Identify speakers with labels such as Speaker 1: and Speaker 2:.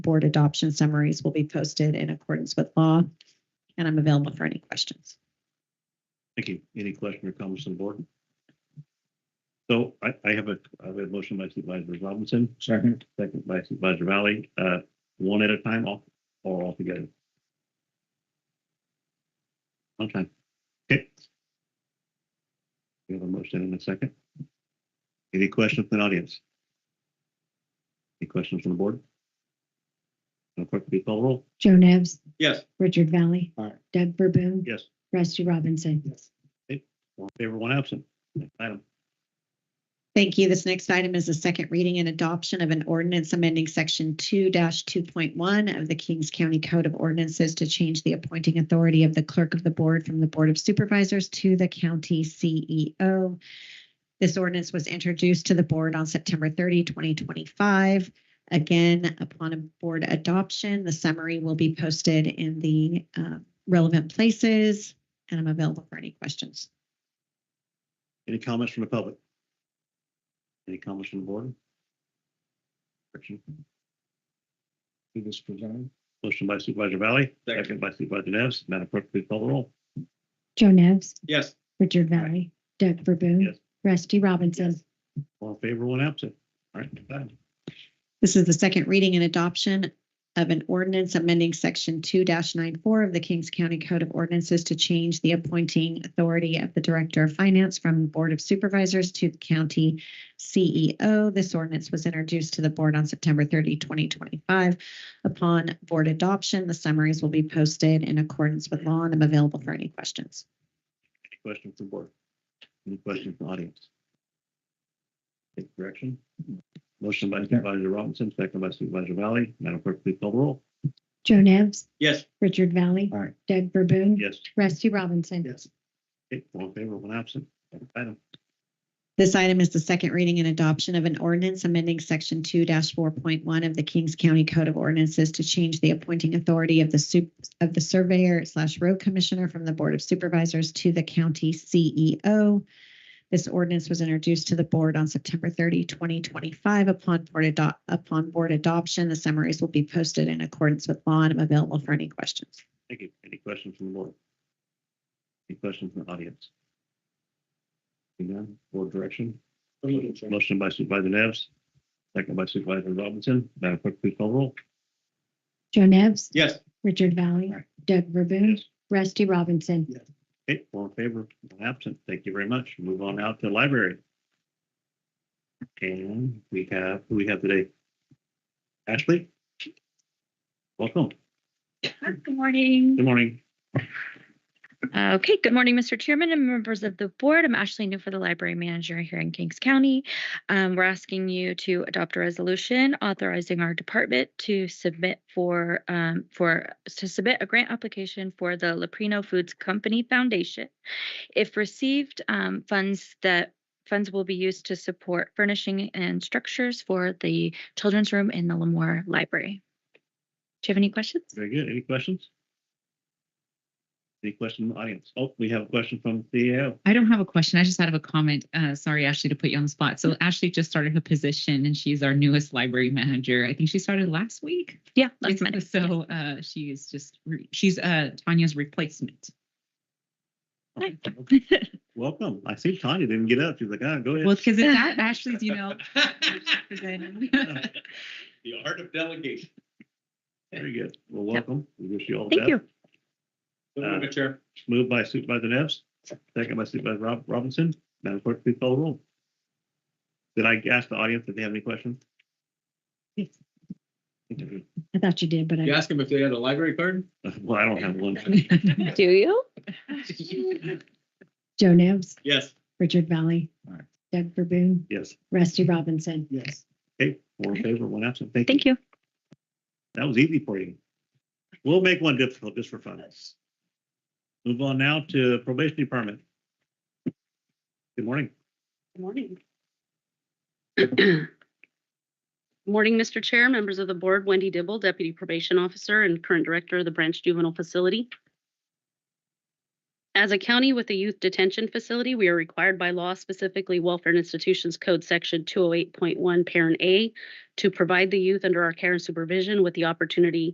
Speaker 1: board adoption summaries will be posted in accordance with law. And I'm available for any questions.
Speaker 2: Thank you. Any question or comments on the board? So I, I have a, I have a motion by Supervisor Robinson. Second. Second by Supervisor Valley, uh, one at a time all or all together? Okay. Okay. We have a motion in a second. Any questions from the audience? Any questions from the board? No clerk, please call the roll.
Speaker 3: Joe Nevs,
Speaker 2: Yes.
Speaker 3: Richard Valley.
Speaker 2: Aye.
Speaker 3: Doug Verboon.
Speaker 2: Yes.
Speaker 3: Rusty Robinson.
Speaker 2: All in favor, one absent. Next item.
Speaker 1: Thank you. This next item is the second reading and adoption of an ordinance amending section two two point one of the Kings County Code of Ordinances to change the appointing authority of the clerk of the board from the Board of Supervisors to the county CEO. This ordinance was introduced to the board on September 30, 2025. Again, upon a board adoption, the summary will be posted in the uh, relevant places, and I'm available for any questions.
Speaker 2: Any comments from the public? Any comments from the board? Correction.
Speaker 4: to this presented.
Speaker 2: Motion by Supervisor Valley,
Speaker 4: Second.
Speaker 2: second by Supervisor Nevs, Madam Clerk, please call the roll.
Speaker 3: Joe Nevs,
Speaker 4: Yes.
Speaker 3: Richard Valley. Doug Verboon.
Speaker 2: Yes.
Speaker 3: Rusty Robinson.
Speaker 2: All in favor, one absent. All right, done.
Speaker 1: This is the second reading and adoption of an ordinance amending section two 94 of the Kings County Code of Ordinances to change the appointing authority of the Director of Finance from Board of Supervisors to the County CEO. This ordinance was introduced to the board on September 30, 2025. Upon board adoption, the summaries will be posted in accordance with law, and I'm available for any questions.
Speaker 2: Any questions from the board? Any questions from the audience? Take direction. Motion by Supervisor Robinson, second by Supervisor Valley, Madam Clerk, please call the roll.
Speaker 3: Joe Nevs,
Speaker 4: Yes.
Speaker 3: Richard Valley.
Speaker 4: Aye.
Speaker 3: Doug Verboon.
Speaker 2: Yes.
Speaker 3: Rusty Robinson.
Speaker 2: Yes. Okay, all in favor, one absent. Next Item.
Speaker 1: This item is the second reading and adoption of an ordinance amending section two four point one of the Kings County Code of Ordinances to change the appointing authority of the sup- of the surveyor slash road commissioner from the Board of Supervisors to the county CEO. This ordinance was introduced to the board on September 30, 2025. Upon board adopt, upon board adoption, the summaries will be posted in accordance with law and I'm available for any questions.
Speaker 2: Thank you. Any questions from the board? Any questions from the audience? Seeing none, board direction. Motion by Supervisor Nevs, second by Supervisor Robinson. Madam Clerk, please call the roll.
Speaker 3: Joe Nevs,
Speaker 4: Yes.
Speaker 3: Richard Valley.
Speaker 2: Aye.
Speaker 3: Doug Verboon. Rusty Robinson.
Speaker 2: Okay, all in favor, one absent. Thank you very much. Move on out to library. And we have, who we have today? Ashley? Welcome.
Speaker 5: Good morning.
Speaker 2: Good morning.
Speaker 5: Okay, good morning, Mr. Chairman and members of the board. I'm Ashley New for the library manager here in Kings County. Um, we're asking you to adopt a resolution authorizing our department to submit for, um, for, to submit a grant application for the Leprino Foods Company Foundation. If received, um, funds that, funds will be used to support furnishing and structures for the children's room in the Lemoore Library. Do you have any questions?
Speaker 2: Very good. Any questions? Any question from the audience? Oh, we have a question from CEO.
Speaker 6: I don't have a question. I just had a comment. Uh, sorry, Ashley, to put you on the spot. So Ashley just started her position and she's our newest library manager. I think she started last week.
Speaker 5: Yeah, last minute.
Speaker 6: So uh, she is just, re- she's uh, Tanya's replacement.
Speaker 5: Hi.
Speaker 2: Welcome. I see Tanya didn't get up. She's like, ah, go
Speaker 6: Well,
Speaker 2: ahead.
Speaker 6: because it's at Ashley's, you know.
Speaker 4: The art of delegation.
Speaker 2: Very good. Well, welcome. We wish you all the
Speaker 5: Thank
Speaker 2: best.
Speaker 5: you.
Speaker 4: So move it, Chair.
Speaker 2: Moved by Supervisor Nevs, second by Supervisor Rob Robinson. Madam Clerk, please call the roll. Did I ask the audience if they have any questions?
Speaker 3: Yes.
Speaker 2: Well,
Speaker 3: I thought you did, but
Speaker 4: You
Speaker 3: I,
Speaker 4: ask them if they had a library card?
Speaker 2: I don't have one.
Speaker 5: Do you?
Speaker 3: Joe Nevs,
Speaker 4: Yes.
Speaker 3: Richard Valley.
Speaker 4: Aye.
Speaker 3: Doug Verboon.
Speaker 2: Yes.
Speaker 3: Rusty Robinson.
Speaker 4: Yes.
Speaker 2: Okay, four in favor, one absent. Thank you.
Speaker 5: Thank you.
Speaker 2: That was easy for you. We'll make one difficult just for fun. Move on now to probation department. Good morning.
Speaker 7: Good morning. Good Morning, Mr. Chair, members of the board, Wendy Dibble, Deputy Probation Officer and current Director of the Branch Juvenile Facility. As a county with a youth detention facility, we are required by law, specifically Welfare and Institutions Code Section two oh eight point one, Parent A, to provide the youth under our care and supervision with the opportunity